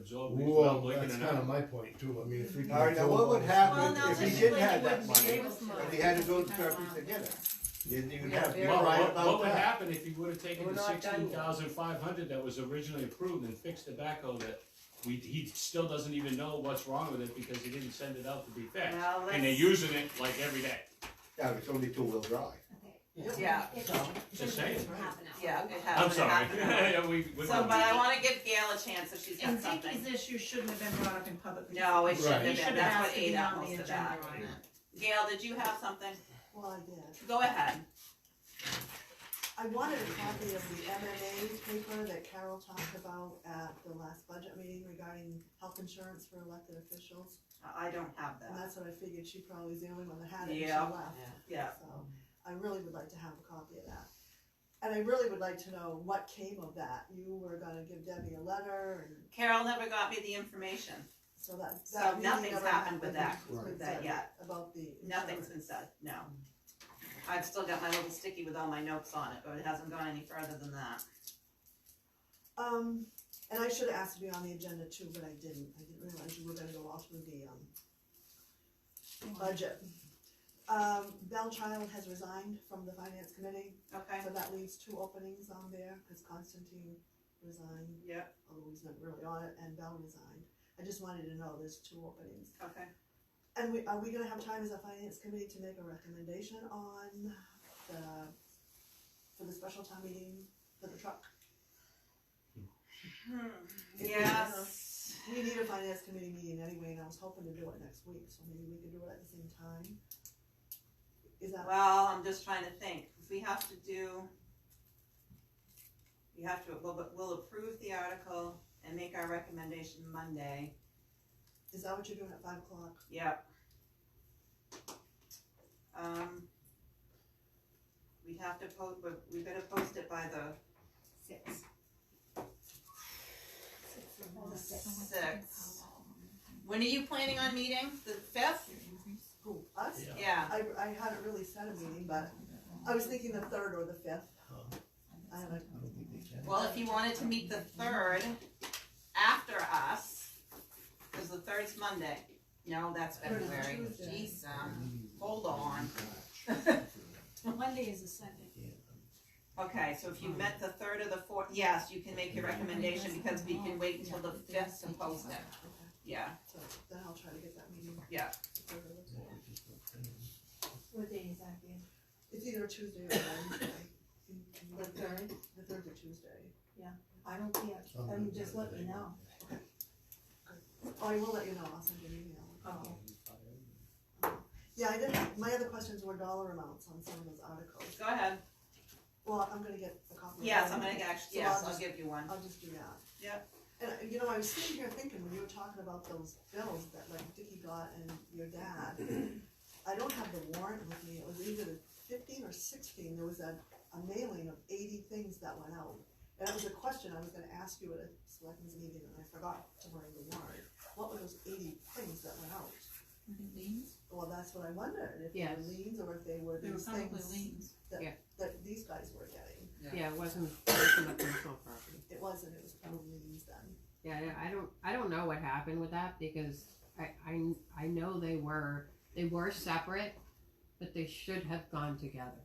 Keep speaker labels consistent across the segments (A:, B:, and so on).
A: absorb these without
B: Well,
A: blinking
B: that's
A: an
B: kind of
A: eye.
B: my point too, I mean, if we. can
C: All right, now what would
B: absorb
C: happen
D: Well, no,
C: if he
D: just
C: didn't
D: like
C: have
D: it
C: that
D: wouldn't
C: money?
D: give us
C: If
D: money.
C: he had to build the
D: Because
C: properties
D: we're-
C: together, then you'd
D: Yeah,
C: have to be
D: very
A: Well,
C: right
A: what, what
C: about
A: would
C: that.
A: happen if he would've taken
E: We're
A: the
E: not done
A: sixteen
E: yet.
A: thousand five hundred that was originally approved and fixed the backhoe that we, he still doesn't even know what's wrong with it because he didn't send it out to be fixed.
D: Well, let's-
A: And they're using it like every day,
C: Yeah, it's only two-wheel drive.
D: Yeah,
A: just saying.
D: yeah, it
A: I'm
D: happened, it
A: sorry.
D: happened.
A: We- we-
D: So, but I wanna give Gail a chance if she's got
F: And
D: something.
F: Vicky's issue shouldn't have been brought up in public.
D: No, it
B: Right.
D: shouldn't
F: He
D: have
F: should
D: been,
F: have
D: that's
F: asked
D: what
F: to be
D: ate up
F: on the
D: most of
F: agenda
D: that.
F: on it.
D: Gail, did you have something?
G: Well, I did.
D: Go ahead.
G: I wanted a copy of the MMA paper that Carol talked about at the last budget meeting regarding health insurance for elected officials.
D: I don't have
G: And
D: that.
G: that's what I figured, she probably was the only one that had it, and she
D: Yeah.
G: left.
D: Yeah,
G: So, I really would like to have a copy of that. And I really would like to know what came of that. You were gonna give Debbie a letter, and
D: Carol never got me the information,
G: so that,
D: So
G: that meeting
D: nothing's
G: never
D: happened
G: happened.
D: with that-
G: It's been
D: with that
G: said
D: yet.
G: About the insurance.
D: nothing's been said, no. I've still got my little sticky with all my notes on it, but it hasn't gone any further than that.
G: Um, and I should have asked to be on the agenda too, but I didn't, I didn't realize you were gonna go all through the, um, budget. Um, Bell Child has resigned from the finance committee,
D: Okay?
G: so that leaves two openings on there, cause Constantine resigned,
D: Yep,
G: although he's not really on it, and Bell resigned. I just wanted to know there's two openings.
D: okay.
G: And we, are we gonna have time as a finance committee to make a recommendation on the, for the special town meeting for the truck?
D: Hmm,
G: If we
D: Yes.
G: We need a finance committee meeting anyway, and I was hoping to do it next week, so maybe we could do it at the same time. Is that,
D: Well, I'm just trying to think, if we have to do, we have to, we'll, we'll approve the article and make our recommendation Monday.
G: is that what you're doing at five o'clock?
D: Yep. Um, we'd have to post, but we better post it by the
E: Six.
D: sixth. When are you planning on meeting? The fifth?
G: Who, us?
A: Yeah.
D: Yeah,
G: I, I hadn't really set a meeting, but I was thinking the third or the fifth. I haven't,
D: well, if you wanted to meet the third after us, cause the third's Monday. No, that's
G: Third is
D: February.
G: Tuesday.
D: Jeez, um, hold on.
E: Monday is a Sunday.
D: Okay, so if you met the third or the fourth, yes, you can make your recommendation because we can wait until the fifth to post it. Yeah,
G: so then I'll try to get that meeting.
D: Yeah.
G: the third or the fourth.
E: What day is that, Gail?
G: It's either a Tuesday or Wednesday.
E: The third?
G: The third or Tuesday.
E: I don't care, um, just let me know.
G: Oh, I will let you know, I'll send you an email.
E: Oh.
G: Yeah, I did, have- my other questions were dollar amounts on some of those articles.
D: go ahead.
G: Well, I'm gonna get a copy. of
D: Yes,
G: them.
D: I'm gonna actually,
G: So
D: yes,
G: I'll
D: I'll
G: just-
D: give you one.
G: I'll just do that.
D: Yep.
G: And, uh, you know, I was sitting here thinking, when you were talking about those bills that like Dickie got and your dad, I don't have the warrant with me, it was either fifteen or sixteen, there was a, a mailing of eighty things that went out. And that was a question I was gonna ask you at a selectmen's meeting, and I forgot to bring the warrant, what were those eighty things that went out? Well, that's what I wondered, if they were
H: Yes.
G: liens or if they were
F: They were
G: these
F: probably
G: things
F: liens.
G: that these guys were getting,
H: Yeah, it wasn't, it wasn't a personal property.
G: it wasn't, it was probably liens then.
H: Yeah, yeah, I don't, I don't know what happened with that because I, I, I know they were, they were separate, but they should have gone together.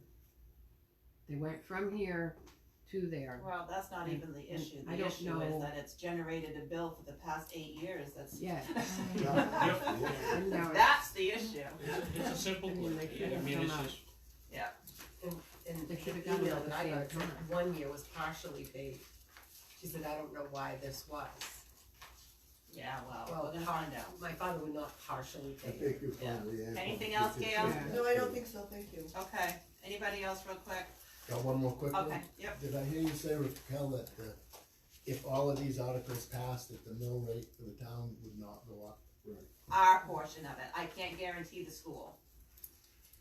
H: They went from here to there.
D: Well, that's not even the issue. The
H: I don't
D: issue is
H: know.
D: that it's generated a bill for the past eight years, that's.
H: Yeah.
A: Yep.
H: I know it-
D: That's the issue.
A: It's, a- it's a simple,
H: I mean, they should
A: I
H: have
A: mean,
H: done
A: it's
H: that.
A: just,
I: And the
H: They should've done it
I: email
H: at
I: that I
H: the
I: got,
H: same time.
I: one year was partially paid. She said, I don't know why this was.
D: Yeah, well,
I: Well,
D: we're gonna find out.
I: My father would not partially
B: I
I: pay.
B: think you probably answered.
D: Anything else, Gail?
H: Yeah.
G: No, I don't think so, thank you.
D: Okay, anybody else real quick?
B: Got one more quick one?
D: Okay, yep,
B: Did I hear you say, Raquel, that the, if all of these articles passed, that the mill rate for the town would not go up?
D: our portion of it. I can't guarantee the school.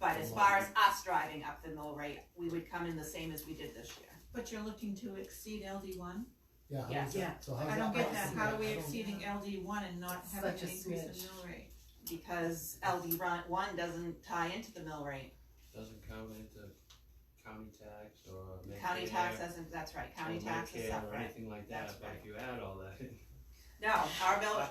D: But as far as us driving up the mill rate, we would come in the same as we did this year.
F: But you're looking to exceed LD one?
B: Yeah, how
D: Yeah.
B: is that, so how's that?
F: I don't get that,
B: possible?
F: how are we
B: I don't-
F: exceeding LD one and not having
I: Such
F: an
I: a
F: increase in mill
I: smidge.
F: rate?
D: because LD run, one doesn't tie into the mill rate.
A: doesn't count into county tax or.
D: County
A: Medicare
D: tax doesn't, that's right, county
A: or
D: tax is
A: Medicare Or
D: separate.
A: anything like that,
D: That's
A: but
D: right.
A: if you add all that,
D: No, our bill,